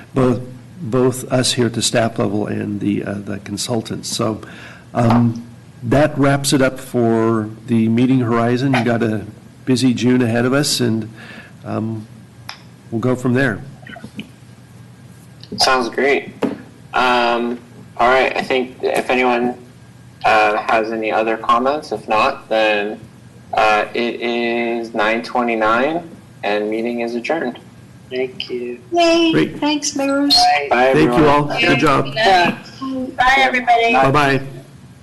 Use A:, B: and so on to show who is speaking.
A: both, both us here at the staff level and the, uh, the consultants. So um, that wraps it up for the meeting horizon. You've got a busy June ahead of us, and um, we'll go from there.
B: Sounds great. Um, all right, I think if anyone uh, has any other comments, if not, then uh, it is 9:29 and meeting is adjourned.
C: Thank you.
A: Great.
D: Yay, thanks, Mayor.
C: Bye.
B: Bye,
A: Thank you
B: everyone.
A: all. Good job.
C: Yeah.
D: Bye, everybody.
A: Bye-bye.